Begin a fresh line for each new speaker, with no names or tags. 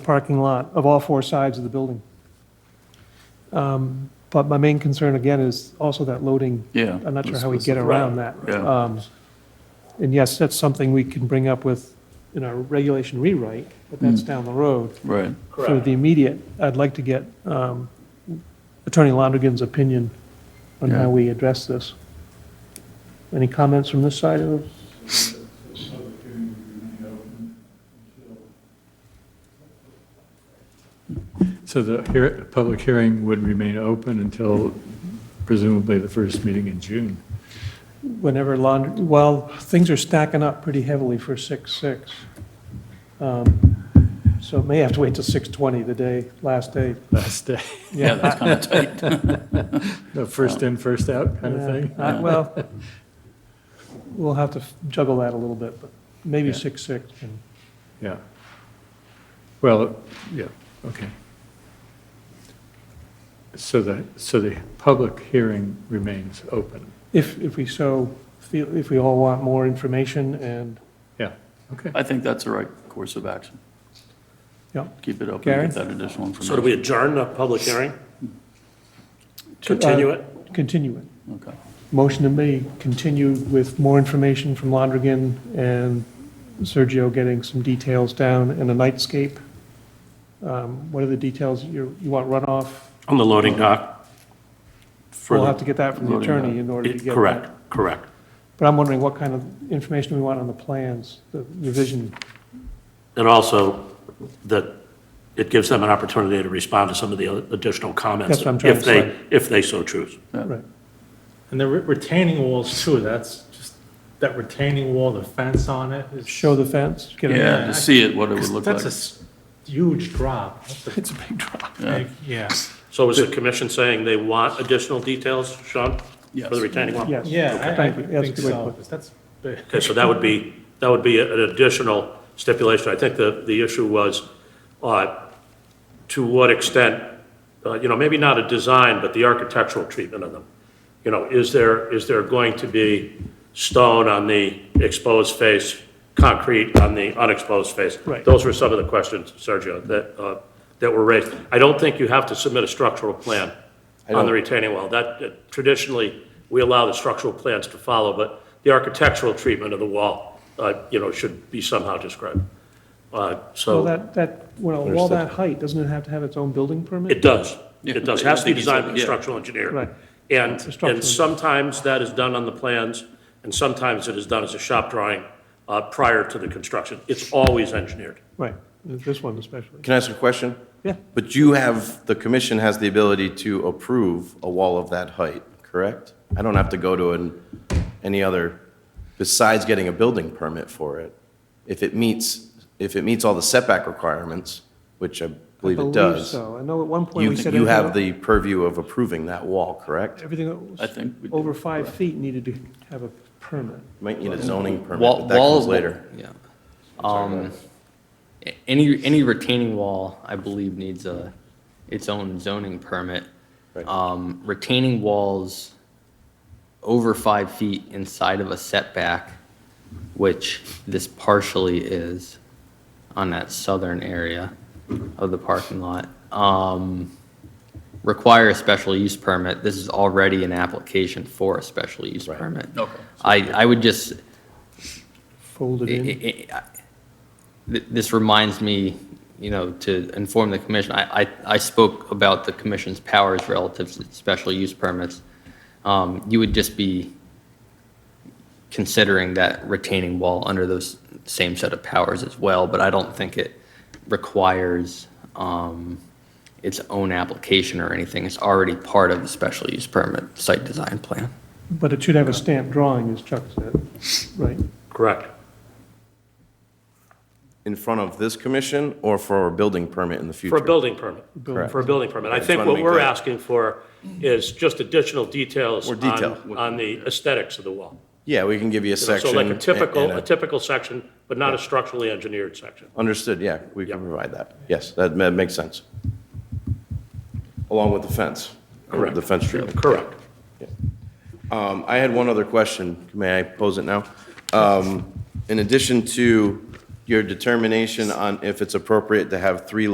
parking lot of all four sides of the building. Um, But my main concern, again, is also that loading.
Yeah.
I'm not sure
let's-
how we
let's-
get around that.
right, Yeah,
Um, And yes, that's something we can bring up with, in our regulation rewrite, but
Mm.
that's down the road.
right.
For the immediate, I'd like to get um, Attorney Londigan's opinion on
Yeah.
how we address this. Any comments from this side of?
So the hear- public hearing would remain open until presumably the first meeting in June.
whenever laundry, well, things are stacking up pretty heavily for six, six. Um, So it may have to wait till six twenty, the day, last day.
Last day,
Yeah, that's kind of tight.
the first in, first out kind of thing.
Yeah, I- Well, we'll have to juggle that a little bit, but maybe
Yeah.
six, six. and-
Yeah. Well, yeah, okay. So the, so the public hearing remains open.
If, if we so feel, if we all want more information and,
Yeah, okay.
I think that's the right course of action.
yeah.
Keep it open,
Gary?
get that additional information.
So do we adjourn the public hearing?
uh,
Continue it?
Continue it.
Okay.
Motion to be continued with more information from Londrigan and Sergio getting some details down and a nightscape. Um, What are the details? You you want runoff?
On the loading dock? For
We'll
the-
have to get that from the
Loading
attorney in order to
it-
get that.
Correct, correct.
But I'm wondering what kind of information we want on the plans, the revision.
And also that it gives them an opportunity to respond to some of the other additional comments.
That's what I'm trying
If
to
they,
say.
if they so choose.
Yeah.
Right.
And the re- retaining walls too, that's just, that retaining wall, the fence on it is.
Show the fence, get a,
Yeah, to see it, what it would look like.
That's a s- huge drop. That's
a big drop.
a
Yeah,
big, yeah.
So is the commission saying they want additional details, Sean? For
Yes.
the retaining wall?
yes.
Yeah, I- I
Thank you. That's a
think
good way to
so.
put
That's big.
Okay, so that would be, that would be an additional stipulation. I think the, the issue was, uh, to what extent, uh, you know, maybe not a design, but the architectural treatment of them. You know, is there, is there going to be stone on the exposed face, concrete on the unexposed face?
Right.
Those were some of the questions, Sergio, that, uh, that were raised. I don't think you have to submit a structural plan on the retaining wall. That, uh, traditionally, we allow the structural plans to follow, but the architectural treatment of the wall, uh, you know, should be somehow described. Uh,
Well,
So
that, that, well, all that height, doesn't it have to have its own building permit?
it does.
Yeah,
It does.
I- I
Has to be
think it's-
designed by a
yeah.
structural engineer.
Right.
And,
a structural engineer.
and sometimes that is done on the plans, and sometimes it is done as a shop drawing uh, prior to the construction. It's always engineered.
Right, this one especially.
Can I ask a question?
Yeah.
But you have, the commission has the ability to approve a wall of that height, correct? I don't have to go to an, any other, besides getting a building permit for it. If it meets, if it meets all the setback requirements, which I believe it does,
so. I know at one point
you,
we said.
you have
everything-
the purview of approving that wall, correct?
Everything that was
I think we do.
over five feet needed to have a permit.
Might need a zoning permit,
Wall-
but that
wall-
comes later.
Yeah. Um, a- any, any retaining wall, I believe, needs a, its own zoning permit.
Right.
Um, retaining walls over five feet inside of a setback, which this partially is on that southern area of the parking lot, um, require a special use permit. This is already an application for a special use permit.
Okay.
I, I would just,
folded
I-
in.
I- I- th- This reminds me, you know, to inform the commission, I, I, I spoke about the commission's powers relative to special use permits. Um, You would just be considering that retaining wall under those same set of powers as well, but I don't think it requires um, its own application or anything. It's already part of the special use permit site design plan.
But it should have a stamped drawing, as Chuck said, right?
Correct.
In front of this commission or for a building permit in the future?
For a building permit.
Correct.
For a building permit. I
just
think
wanna
what
make
we're
that-
asking for is just additional details
More
on,
detail.
on the aesthetics of the wall.
Yeah, we can give you a
So
section.
like a
and-
typical,
and
a typical section, but not a structurally engineered section.
Understood, yeah, we can
Yeah.
provide that. Yes, that ma- makes sense. Along with the fence.
Correct.
The fence treatment.
Correct.
Um, I had one other question, may I pose it now? Um, In addition to your determination on if it's appropriate to have three